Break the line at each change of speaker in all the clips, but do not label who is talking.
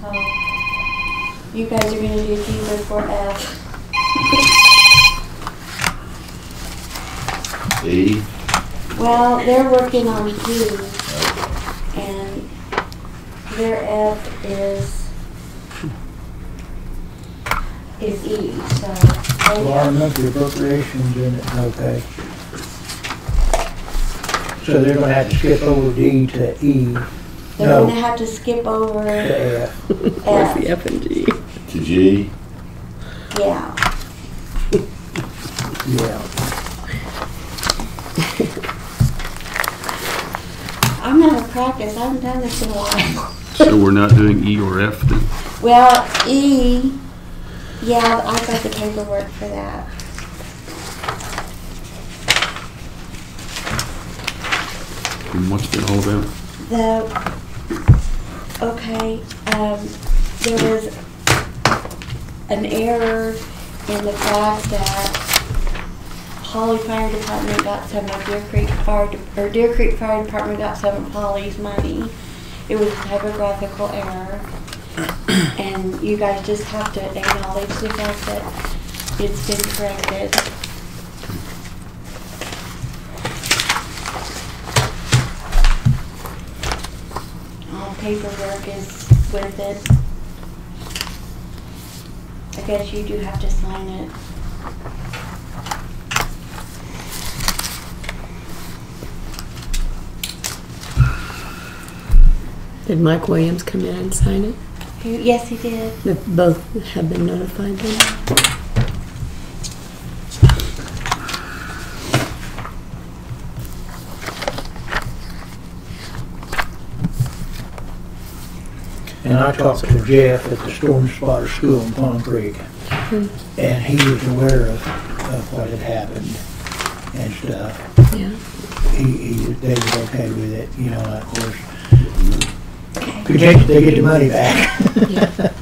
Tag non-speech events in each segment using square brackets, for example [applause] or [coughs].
Oh. You guys are gonna do D before F.
E,
Well, they're working on D, and their F is, is E, so. they-
Environmental appropriations in it, okay. So they're gonna have to skip over D to E
They're
No.
gonna have to skip over
to F.
Where's the [laughs]
F,
F and G?
to G,
yeah.
Yeah.
I'm out of practice, I haven't done this in a while.
So we're not doing E or F then?
Well, E, yeah, I got the paperwork for that.
And what's that all about?
The, okay, um, there was an error in the fact that Holly Fire Department got some of Deer Creek Fire, De- or Deer Creek Fire Department got some of Holly's money. It was a typographical error. And you guys just have to acknowledge the fact that it's been corrected. All paperwork is with it. I guess you do have to sign it.
Did Mike Williams come in and sign it?
Who- Yes, he did.
That both have been notified then?
And I talked to Jeff at the Storm Spotter School in Pond Creek. And he was aware of, of what had happened and stuff.
Yeah.
He, he, they were okay with it, you know, and of course,
Okay.
projected they get the money back. [laughs]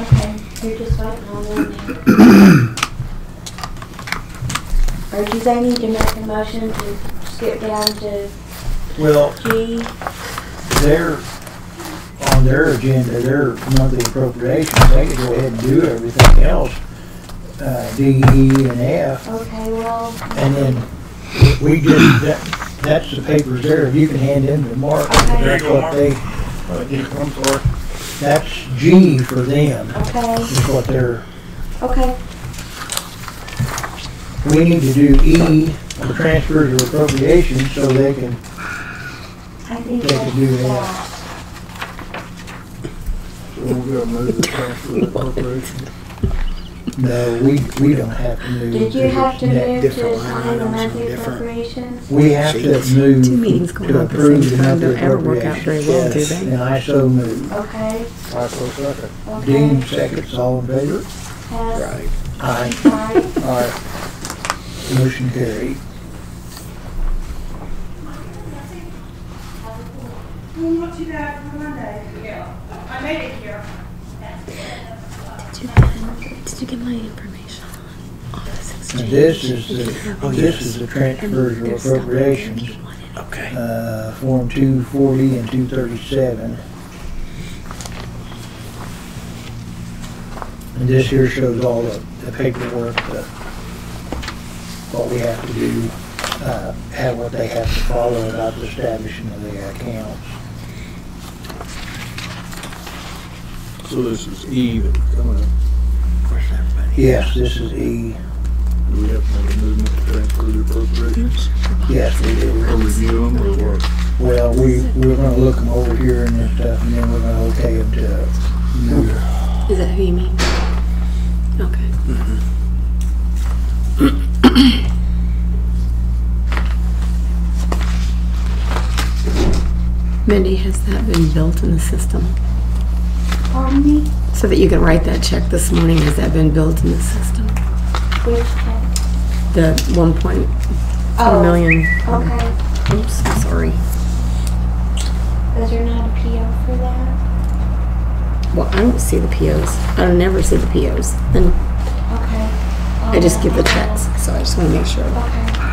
Okay, you're just waiting on one now. Or do they need to make a motion to skip down to
Well,
G?
their, on their agenda, their monthly appropriations, they could go ahead and do everything else, uh, D, E, and F,
Okay, well,
and then we just, that, that's the papers there, you can hand them to Mark.
Okay.
That's what they, that's G for them,
okay,
is what they're,
okay,
we need to do E for transfers or appropriations so they can,
I think
They can
that's
do that.
that.
So we're gonna move the transfer of appropriation.
[laughs] no, we, we don't have to move.
Did you have to
Net
move
different
to sign
line
the
items
monthly
and different-
appropriations?
We have to move
Two meetings going
to
on at the same
approve the
time
monthly
don't ever work out very well, do
appropriations.
they?
Yes, And I so move.
Okay,
I so second.
okay.
Dean seconds, all in favor?
Has,
Aye.
sorry.
Aye. Motion carried.
Not too bad for Monday. Yeah. I made it here.
Did you get, did you get my information on Office
And
Exchange?
this is the,
Oh,
oh, this is the
And
transfers or
there's stuff there that
appropriations,
you wanted.
Okay.
uh, Form 240 and 237. And this here shows all the the paperwork, the- what we have to do, uh, have what they have to follow about the establishment of the accounts.
So this is E that's coming up.
Yes, this is E.
Do we have to make a movement to transfer the appropriations?
Yes, we
Or
do.
review them or what?
Well, we, we're gonna look them over here and this stuff, and then we're gonna okay them to,
Is that who you mean? [coughs] Okay. Mindy, has that been built in the system?
Pardon me?
So that you can write that check this morning, has that been built in the system?
Which one?
The one point
Oh,
four million.
Okay,
Oops, I'm sorry.
is there not a PO for that?
Well, I don't see the POs. I don't never see the POs. And
Okay.
I just give the
Okay.
checks, so I just wanna make sure.
Okay.